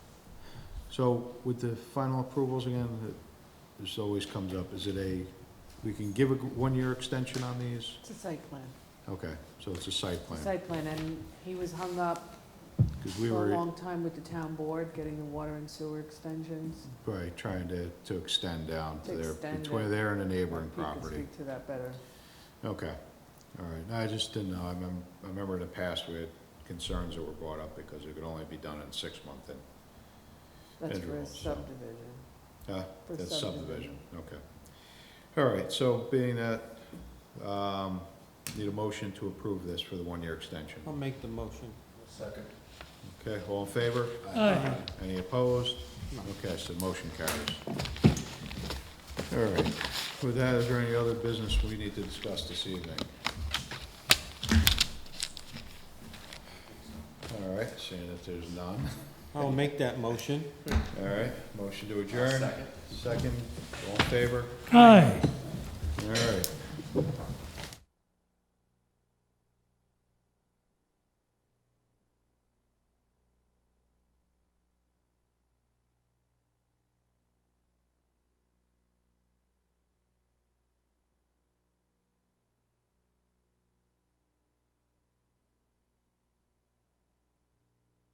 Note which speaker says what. Speaker 1: So with the final approvals again, that- this always comes up, is it a, we can give a g- one-year extension on these?
Speaker 2: It's a site plan,
Speaker 1: Okay, so it's a site
Speaker 2: it's a
Speaker 1: plan,
Speaker 2: site plan, and he was hung up
Speaker 1: because
Speaker 2: for
Speaker 1: we
Speaker 2: a
Speaker 1: were,
Speaker 2: long time with the town board, getting the water and sewer extensions.
Speaker 1: right, trying to, to extend down to
Speaker 2: To
Speaker 1: their,
Speaker 2: extend
Speaker 1: between
Speaker 2: it.
Speaker 1: there and a
Speaker 2: He
Speaker 1: neighboring
Speaker 2: can
Speaker 1: property.
Speaker 2: Speak to that better.
Speaker 1: Okay, all right, No, I just didn't know, I remember, I remember in the past, we had concerns that were brought up because it could only be done in six months, and,
Speaker 2: That's for a
Speaker 1: Intervals, so.
Speaker 2: subdivision.
Speaker 1: huh?
Speaker 2: for
Speaker 1: That's subdivision, okay. All right, so being that, um, need a motion to approve this for the one-year extension.
Speaker 3: I'll make the motion.
Speaker 4: Second.
Speaker 1: Okay, all in favor?
Speaker 5: Aye.
Speaker 1: Any opposed? Okay, so motion carries. All right, with that, is there any other business we need to discuss this evening? All right, seeing that there's none,
Speaker 3: I'll make that motion.
Speaker 1: all right, motion to adjourn. Second, all in favor?
Speaker 5: Aye.
Speaker 1: All right.